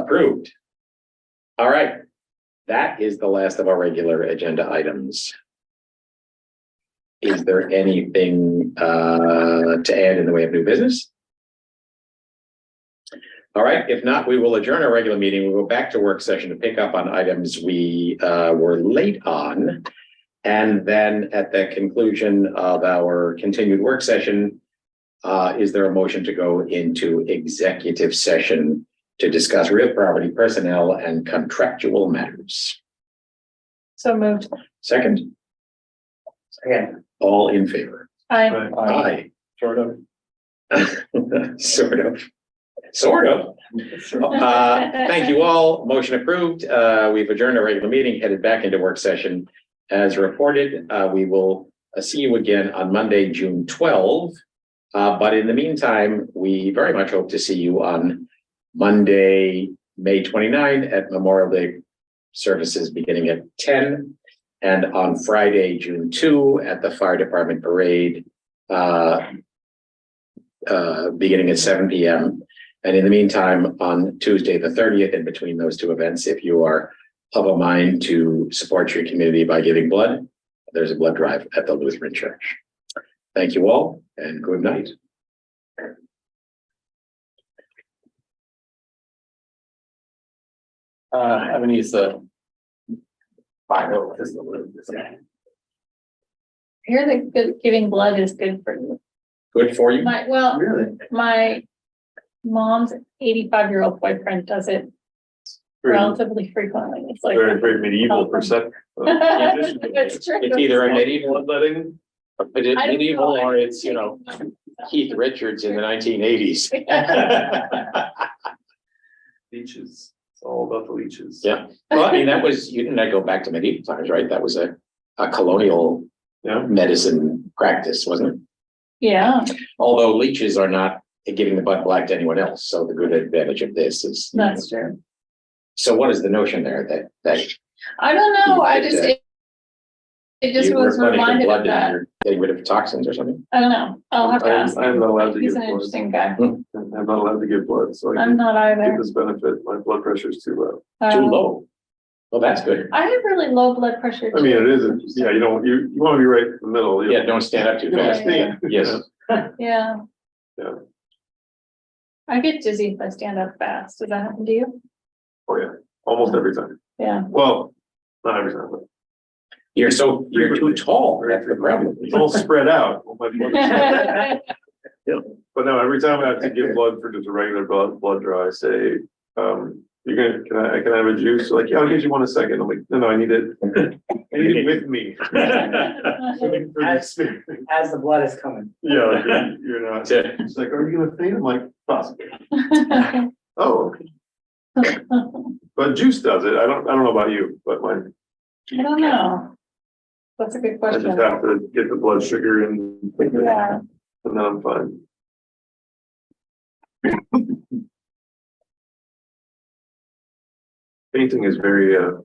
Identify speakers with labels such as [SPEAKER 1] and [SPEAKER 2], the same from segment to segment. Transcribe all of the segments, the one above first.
[SPEAKER 1] Approved. All right. That is the last of our regular agenda items. Is there anything uh to add in the way of new business? All right, if not, we will adjourn our regular meeting. We'll go back to work session to pick up on items we uh were late on. And then at the conclusion of our continued work session, uh, is there a motion to go into executive session to discuss real property, personnel, and contractual matters.
[SPEAKER 2] So moved.
[SPEAKER 1] Second,
[SPEAKER 3] Again.
[SPEAKER 1] all in favor?
[SPEAKER 2] I,
[SPEAKER 1] Aye. Sort of. Sort of. Sort of. Uh, Thank you all. Motion approved. Uh, We've adjourned our regular meeting, headed back into work session. As reported, uh, we will uh, see you again on Monday, June 12. Uh, But in the meantime, we very much hope to see you on Monday, May 29 at Memorial Day services beginning at 10 and on Friday, June 2 at the Fire Department Parade uh, uh, beginning at seven PM. And in the meantime, on Tuesday, the thirtieth, in between those two events, if you are of a mind to support your community by giving blood, there's a blood drive at the Lutheran Church. Thank you all and good night.
[SPEAKER 3] Uh, I'm gonna use the. Final, this is a little, this is a-
[SPEAKER 2] I hear that good, giving blood is good for you.
[SPEAKER 1] Good for you.
[SPEAKER 2] My, well,
[SPEAKER 3] Really?
[SPEAKER 2] my mom's eighty-five year old boyfriend does it
[SPEAKER 4] Very,
[SPEAKER 2] relatively frequently. It's like.
[SPEAKER 4] very, very medieval perception.
[SPEAKER 2] It's true.
[SPEAKER 1] It's either a medieval,
[SPEAKER 4] Bloodletting.
[SPEAKER 1] it is
[SPEAKER 2] I don't
[SPEAKER 1] medieval
[SPEAKER 2] know.
[SPEAKER 1] or it's, you know, Keith Richards in the nineteen eighties.
[SPEAKER 4] Leeches, it's all about the leeches.
[SPEAKER 1] Yeah. Well, I mean, that was, you didn't go back to medieval times, right? That was a, a colonial
[SPEAKER 4] Yeah.
[SPEAKER 1] medicine practice, wasn't it?
[SPEAKER 2] Yeah,
[SPEAKER 1] Although leeches are not giving the butt black to anyone else, so the good advantage of this is.
[SPEAKER 2] that's true.
[SPEAKER 1] So what is the notion there that, that?
[SPEAKER 2] I don't know. I just, it it just
[SPEAKER 1] you
[SPEAKER 2] was
[SPEAKER 1] were running for
[SPEAKER 2] reminded
[SPEAKER 1] blood
[SPEAKER 2] of
[SPEAKER 1] and
[SPEAKER 2] that.
[SPEAKER 1] you're Getting rid of toxins or something?
[SPEAKER 2] I don't know. I'll have to
[SPEAKER 4] I'm-
[SPEAKER 2] ask.
[SPEAKER 4] I'm not allowed to
[SPEAKER 2] He's
[SPEAKER 4] give
[SPEAKER 2] an
[SPEAKER 4] blood.
[SPEAKER 2] interesting guy.
[SPEAKER 4] I'm not allowed to give blood, so I
[SPEAKER 2] I'm
[SPEAKER 4] can
[SPEAKER 2] not
[SPEAKER 4] get
[SPEAKER 2] either.
[SPEAKER 4] this benefit. My blood pressure is too low.
[SPEAKER 1] Too
[SPEAKER 2] Um,
[SPEAKER 1] low. Well, that's good.
[SPEAKER 2] I have really low blood pressure.
[SPEAKER 4] I mean, it isn't, yeah, you don't, you, you want to be right in the middle. you
[SPEAKER 1] Yeah,
[SPEAKER 4] know.
[SPEAKER 1] don't stand up too
[SPEAKER 4] You don't
[SPEAKER 1] fast.
[SPEAKER 4] stand.
[SPEAKER 1] Yes.
[SPEAKER 2] Yeah.
[SPEAKER 4] Yeah.
[SPEAKER 2] I get dizzy if I stand up fast. Does that happen to you?
[SPEAKER 4] Oh, yeah, almost every time.
[SPEAKER 2] Yeah.
[SPEAKER 4] Well, not every time, but
[SPEAKER 1] You're so, you're too tall. That's the problem.
[SPEAKER 4] it's all spread out. Well, my blood pressure- But no, every time I have to give blood for just a regular blood, blood draw, I say, um, you're gonna, can I, can I have a juice? They're Like, yeah, I'll give you one in a second. I'm like, no, no, I need it. I need it with me. For the- for the experience.
[SPEAKER 3] As the blood is coming.
[SPEAKER 4] Yeah, like, you're- you're not,
[SPEAKER 1] That's it.
[SPEAKER 4] it's like, are you gonna faint? I'm like, possibly. Oh, okay. but juice does it. I don't, I don't know about you, but mine,
[SPEAKER 2] I don't know. That's a good
[SPEAKER 4] I just
[SPEAKER 2] question.
[SPEAKER 4] have to get the blood sugar and
[SPEAKER 2] Yeah.
[SPEAKER 4] and then I'm fine. Painting is very, uh,
[SPEAKER 2] Is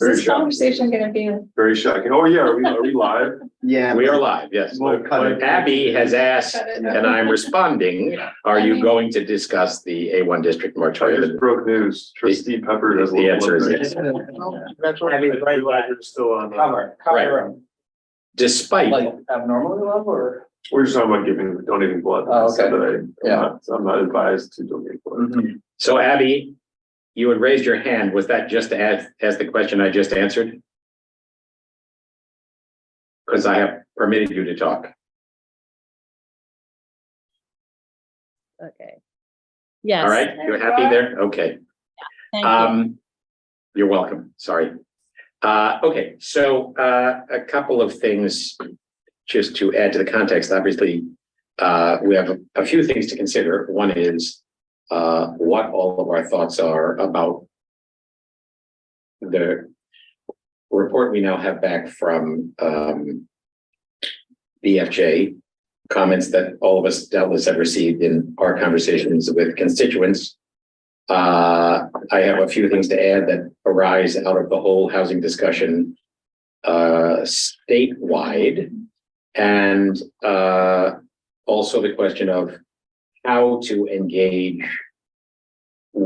[SPEAKER 4] very
[SPEAKER 2] this
[SPEAKER 4] shocking,
[SPEAKER 2] conversation gonna be?
[SPEAKER 4] very shocking. Oh, yeah, are we, are we live?
[SPEAKER 3] Yeah.
[SPEAKER 1] We are live, yes.
[SPEAKER 4] Well, cut it.
[SPEAKER 1] Abby has asked,
[SPEAKER 2] Cut it.
[SPEAKER 1] and I'm responding, are you going to discuss the A one district
[SPEAKER 4] I
[SPEAKER 1] moratorium?
[SPEAKER 4] just broke news. Trustee Pepper has.
[SPEAKER 1] The answer is
[SPEAKER 4] low
[SPEAKER 1] yes.
[SPEAKER 4] blood pressure. I realize we're Still on, uh,
[SPEAKER 3] Cover, cover room.
[SPEAKER 1] Despite,
[SPEAKER 3] Like abnormally low or?
[SPEAKER 4] we're just talking about giving, donating blood.
[SPEAKER 3] Oh, okay.
[SPEAKER 4] Saturday. I'm
[SPEAKER 3] Yeah.
[SPEAKER 4] not- I'm not advised to donate blood.
[SPEAKER 1] so Abby, you had raised your hand. Was that just to ask, ask the question I just answered? Because I have permitted you to talk.
[SPEAKER 5] Okay.
[SPEAKER 1] All
[SPEAKER 5] Yes,
[SPEAKER 1] right, you're happy there? Okay.
[SPEAKER 5] thank you.
[SPEAKER 1] Um, you're welcome, sorry. Uh, okay, so, uh, a couple of things just to add to the context, obviously, uh, we have a few things to consider. One is, uh, what all of our thoughts are about the report we now have back from, um, BFJ, comments that all of us doubtless have received in our conversations with constituents. Uh, I have a few things to add that arise out of the whole housing discussion uh, statewide. And uh, also the question of how to engage